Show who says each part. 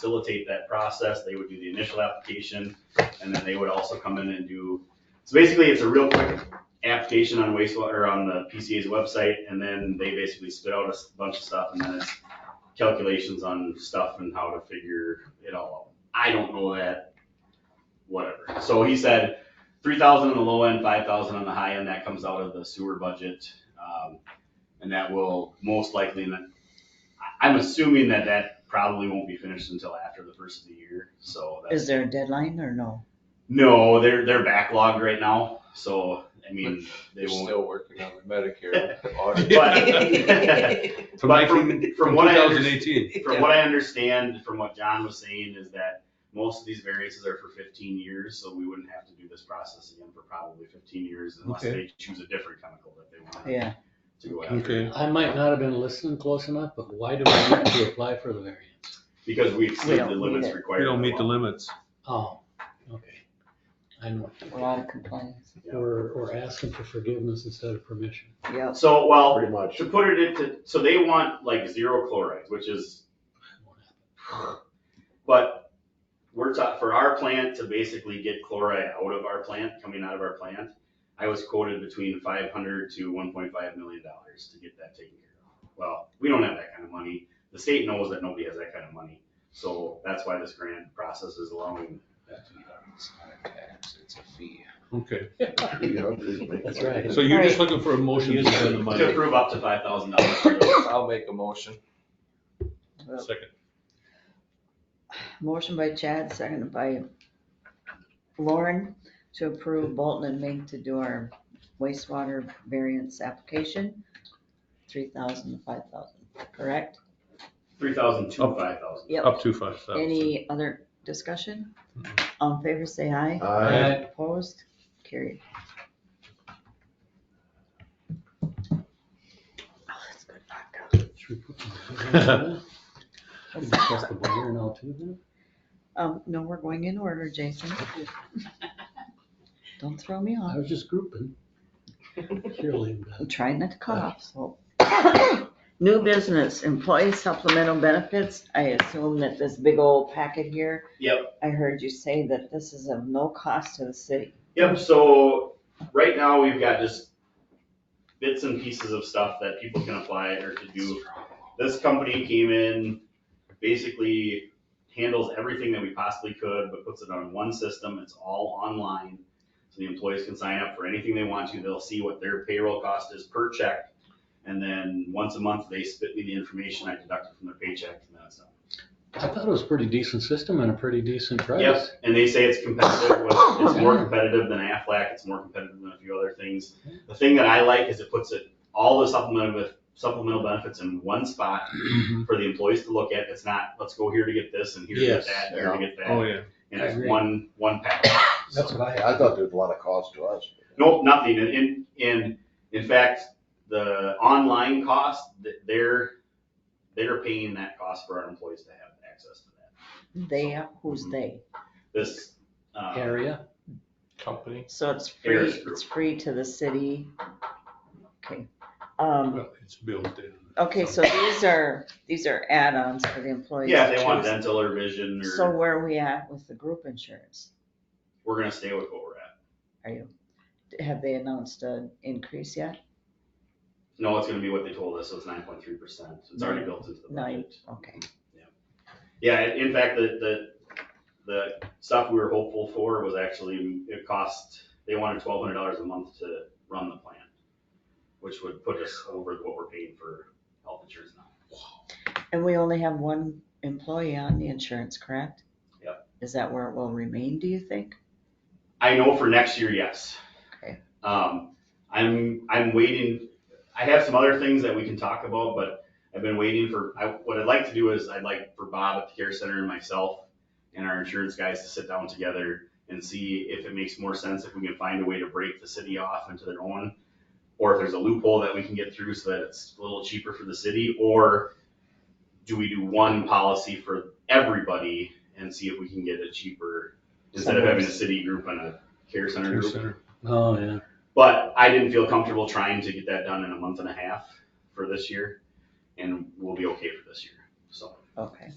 Speaker 1: facilitate that process. They would do the initial application, and then they would also come in and do, so basically, it's a real quick application on wastewater, or on the PCA's website, and then they basically spit out a s- bunch of stuff, and then it's calculations on stuff and how to figure it all out. I don't know that, whatever. So he said, three thousand on the low end, five thousand on the high end, that comes out of the sewer budget. Um, and that will most likely, and I- I'm assuming that that probably won't be finished until after the first of the year, so. that's-
Speaker 2: Is there a deadline or no?
Speaker 1: No, they're, they're backlogged right now, so, I mean, they
Speaker 3: They're
Speaker 1: won't.
Speaker 3: still working on the Medicare audit.
Speaker 1: But-
Speaker 4: From
Speaker 1: But from-
Speaker 4: 19
Speaker 1: from what I under-
Speaker 4: 2018.
Speaker 1: From what I understand, from what John was saying, is that most of these variances are for fifteen years, so we wouldn't have to do this process again for probably fifteen years unless
Speaker 4: Okay.
Speaker 1: they choose a different chemical that they want
Speaker 2: Yeah,
Speaker 1: to go after.
Speaker 4: Okay.
Speaker 5: I might not have been listening close enough, but why do we need to apply for the variance?
Speaker 1: Because we
Speaker 2: We
Speaker 1: exceed the
Speaker 2: don't need
Speaker 1: limits
Speaker 2: it.
Speaker 1: required.
Speaker 4: We don't
Speaker 1: by
Speaker 4: meet the
Speaker 1: law.
Speaker 4: limits.
Speaker 5: Oh, okay. I know.
Speaker 2: a lot of complaints.
Speaker 5: Or, or asking for forgiveness instead of permission.
Speaker 2: Yep.
Speaker 1: So, well,
Speaker 6: Pretty much.
Speaker 1: to put it into, so they want like zero chlorides, which is But we're taught, for our plant to basically get chloride out of our plant, coming out of our plant, I was quoted between five hundred to one point five million dollars to get that taken care of. Well, we don't have that kind of money. The state knows that nobody has that kind of money. So that's why this grant process is allowing that to be done.
Speaker 3: It's not a tax, it's a fee.
Speaker 4: Okay.
Speaker 5: That's right.
Speaker 4: So you're just
Speaker 2: Right.
Speaker 4: looking for a motion to spend the
Speaker 1: To
Speaker 4: money.
Speaker 1: approve up to five thousand dollars.
Speaker 3: I'll make a motion.
Speaker 4: Second.
Speaker 2: Motion by Chad, seconded by Lauren to approve Bolton and Mink to do our wastewater variance application. Three thousand to five thousand, correct?
Speaker 1: Three thousand to
Speaker 4: Up.
Speaker 1: five thousand.
Speaker 2: Yep.
Speaker 4: Up to five thousand.
Speaker 2: Any other discussion? All in favor, say aye.
Speaker 6: Aye.
Speaker 2: Opposed, carried. Oh, that's good vodka.
Speaker 5: Should we put them- Should we press the button now too then?
Speaker 2: Um, no, we're going in order, Jason. Don't throw me off.
Speaker 5: I was just grouping. Carolyn does.
Speaker 2: I'm trying not to cough, so. New business, employee supplemental benefits. I assume that this big old packet here,
Speaker 1: Yep.
Speaker 2: I heard you say that this is of no cost to the city.
Speaker 1: Yep, so right now we've got just bits and pieces of stuff that people can apply or to do. This company came in, basically handles everything that we possibly could, but puts it on one system. It's all online. So the employees can sign up for anything they want to. They'll see what their payroll cost is per check. And then once a month, they spit me the information. I deduct it from their paycheck and that's done.
Speaker 5: I thought it was a pretty decent system and a pretty decent price.
Speaker 1: Yes, and they say it's competitive, with- it's more competitive than Aflac, it's more competitive than a few other things. The thing that I like is it puts it, all the supplemental, supplemental benefits in one spot
Speaker 5: Mm-hmm.
Speaker 1: for the employees to look at, it's not, let's go here to get this and here to get
Speaker 4: Yes.
Speaker 1: that, here to get
Speaker 4: Oh,
Speaker 1: that.
Speaker 4: yeah.
Speaker 1: And it's
Speaker 5: Agree.
Speaker 1: one, one package.
Speaker 5: That's
Speaker 1: So-
Speaker 5: what I,
Speaker 6: I thought there was a lot of cost to us.
Speaker 1: Nope, nothing, and, and, and in fact, the online cost, th- they're, they're paying that cost for our employees to have access to that.
Speaker 2: They, who's they?
Speaker 1: This, uh,
Speaker 5: area.
Speaker 3: Company.
Speaker 2: So it's free,
Speaker 1: Harris Group.
Speaker 2: it's free to the city. Okay. Um,
Speaker 4: Well, It's built in.
Speaker 2: okay, so these are, these are add-ons for the employees.
Speaker 1: yeah,
Speaker 2: to
Speaker 1: if they want
Speaker 2: choose.
Speaker 1: dental or vision or.
Speaker 2: So where are we at with the group insurance?
Speaker 1: we're gonna stay with what we're at.
Speaker 2: Are you, have they announced an increase yet?
Speaker 1: No, it's gonna be what they told us, so it's nine point three percent. It's already built into the
Speaker 2: Nine.
Speaker 1: budget.
Speaker 2: Okay.
Speaker 1: Yeah, in in fact, the, the, the stuff we were hopeful for was actually, it cost, they wanted twelve hundred dollars a month to run the plan, which would put us over what we're paying for health insurance now.
Speaker 2: And we only have one employee on the insurance, correct?
Speaker 1: Yep.
Speaker 2: Is that where it will remain, do you think?
Speaker 1: I know for next year, yes.
Speaker 2: Okay.
Speaker 1: Um, I'm, I'm waiting, I have some other things that we can talk about, but I've been waiting for, I, what I'd like to do is, I'd like for Bob at the care center and myself and our insurance guys to sit down together and see if it makes more sense, if we can find a way to break the city off into their own, or if there's a loophole that we can get through so that it's a little cheaper for the city, or do we do one policy for everybody and see if we can get it cheaper instead of having a city group and a care center
Speaker 4: Care
Speaker 1: group?
Speaker 4: center.
Speaker 5: Oh, yeah.
Speaker 1: But I didn't feel comfortable trying to get that done in a month and a half for this year, and we'll be okay for this year, so.
Speaker 2: Okay.